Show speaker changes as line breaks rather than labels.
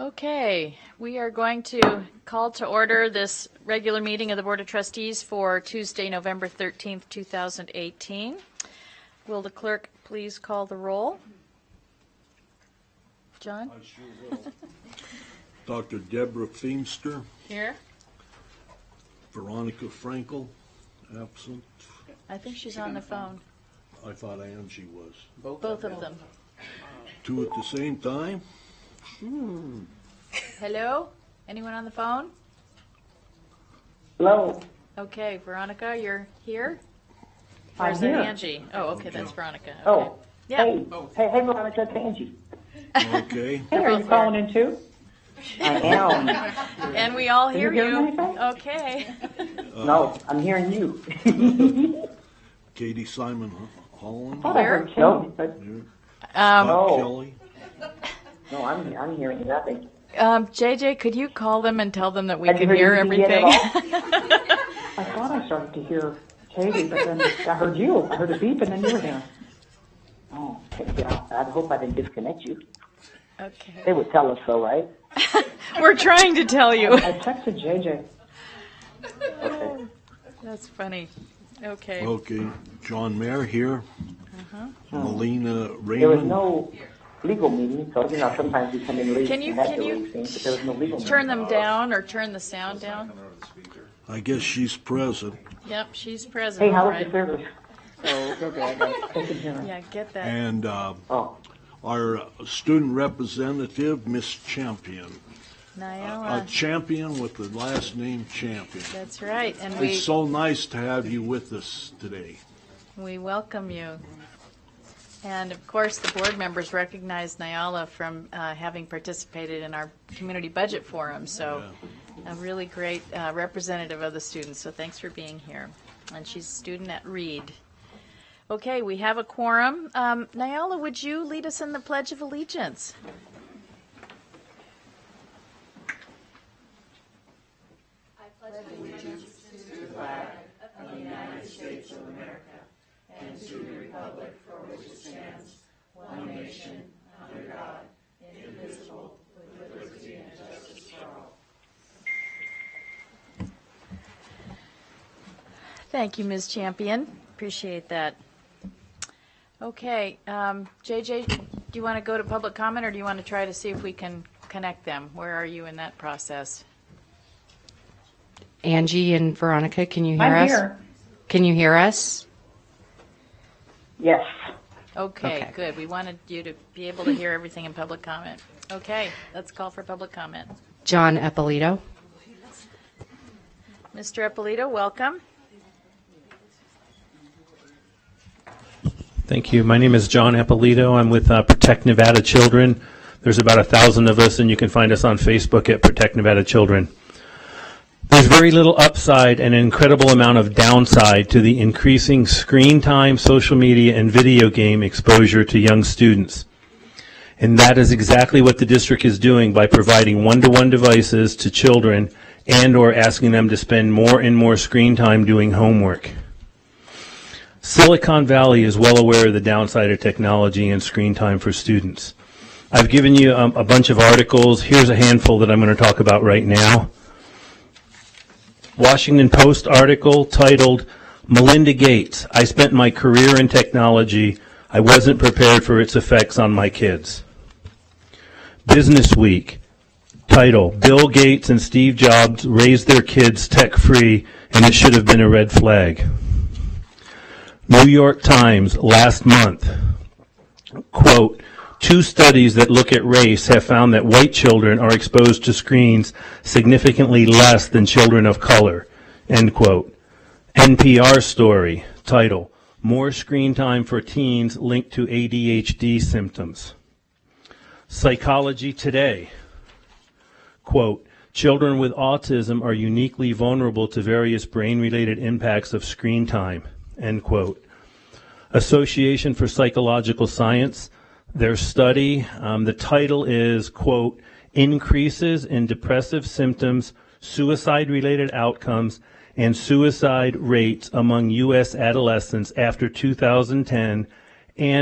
Okay, we are going to call to order this regular meeting of the Board of Trustees for Tuesday, November 13th, 2018. Will the clerk please call the roll? John?
Dr. Deborah Feemster,
Here.
Veronica Frankel, absent.
I think she's on the phone,
I thought Angie was.
both of them.
Two at the same time?
Hello? Anyone on the phone?
Hello.
Okay, Veronica, you're here?
I'm
Or is that
here.
Angie? Oh, okay, that's Veronica. Okay.
Oh,
Yeah,
hey, hey, hey, Veronica, it's Angie.
Okay.
Hey, are you
both
calling in too? I am.
and we all hear
you hear
you.
anything?
Okay.
No, I'm hearing you.
Katie Simon Ho- Holland,
Thought I heard Kelly, but
Bob
Oh.
Kelly.
no, I'm, I'm hearing nothing.
Um, JJ, could you call them and tell them that we
Have you
can
heard
hear
anything yet
everything?
at I thought I started to hear Katie, but then I heard you. I heard a beep and then you were there. Oh, okay, yeah, I hope I didn't disconnect you.
Okay.
They would tell us so, right?
We're trying to tell you.
I texted JJ. Okay.
That's funny. Okay.
Okay, John Mayer here. Melina
Hmm. There was
Raymond.
no legal meeting, so, you know, sometimes we come in late
Can you-
and have
can
the
you
late thing, but there was no legal meeting.
Turn them down or turn the sound down.
I guess she's present.
Yep, she's present.
Hey, how
all
was the
right.
service? Oh, it's okay, I got it. I can hear her.
Yeah, get that.
And uh,
Oh,
our student representative, Miss Champion. A
Nyala.
champion with the last name Champion.
That's right. And we,
It's so nice to have you with us today.
we welcome you. And of course, the board members recognize Nyala from uh, having participated in our community budget forum. So a really great uh, representative of the students. So thanks for being here. And she's a student at Reed. Okay, we have a quorum. Um, Nyala, would you lead us in the Pledge of Allegiance? Thank you, Ms. Champion. Appreciate that. Okay, um, JJ, do you want to go to public comment, or do you want to try to see if we can connect them? Where are you in that process?
Angie and Veronica, can you hear
I'm
us?
here.
Can you hear us?
Yes.
Okay,
Okay.
good. We wanted you to be able to hear everything in public comment. Okay, let's call for public comment.
John Eppolito.
Mr. Eppolito, welcome.
Thank you. My name is John Appolito. I'm with uh, Protect Nevada Children. There's about a thousand of us, and you can find us on Facebook at Protect Nevada Children. There's very little upside and an incredible amount of downside to the increasing screen time, social media, and video game exposure to young students. And that is exactly what the district is doing by providing one-to-one devices to children and/or asking them to spend more and more screen time doing homework. Silicon Valley is well aware of the downside of technology and screen time for students. I've given you um, a bunch of articles. Here's a handful that I'm going to talk about right now. Washington Post article titled Melinda Gates, I spent my career in technology. I wasn't prepared for its effects on my kids. Business Week title Bill Gates and Steve Jobs raised their kids tech free and it should have been a red flag. New York Times last month. Quote, two studies that look at race have found that white children are exposed to screens significantly less than children of color. End quote. NPR story title, More Screen Time for Teens Linked to ADHD Symptoms. Psychology Today quote, Children with autism are uniquely vulnerable to various brain related impacts of screen time, end quote. Association for Psychological Science, their study, um, the title is, quote, Increases in Depressive Symptoms, Suicide Related Outcomes, and Suicide Rates Among U.S. Adolescents After 2010